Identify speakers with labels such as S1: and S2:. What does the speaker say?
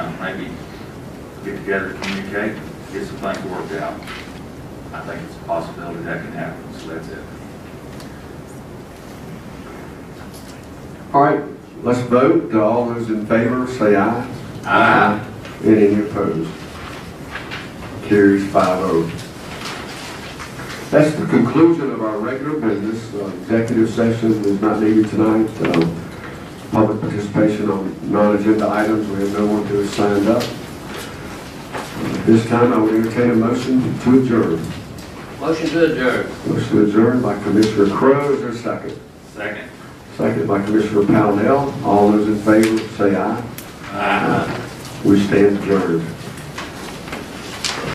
S1: maybe get together, communicate, get some things worked out. I think it's a possibility that can happen, so that's it.
S2: All right, let's vote. All those in favor, say aye.
S1: Aye.
S2: And any opposed? Carries five oh. That's the conclusion of our regular business. Uh, Executive session is not needed tonight. Uh, Public participation on non-agenda items, we have no one who has signed up. Uh, At This time, I would entertain a motion to adjourn.
S3: Motion to adjourn.
S2: Motion to adjourn by Commissioner Crowe, is there a second?
S1: Second.
S2: Second by Commissioner Pownell. All those in favor, say aye.
S1: Aye.
S2: We stand adjourned.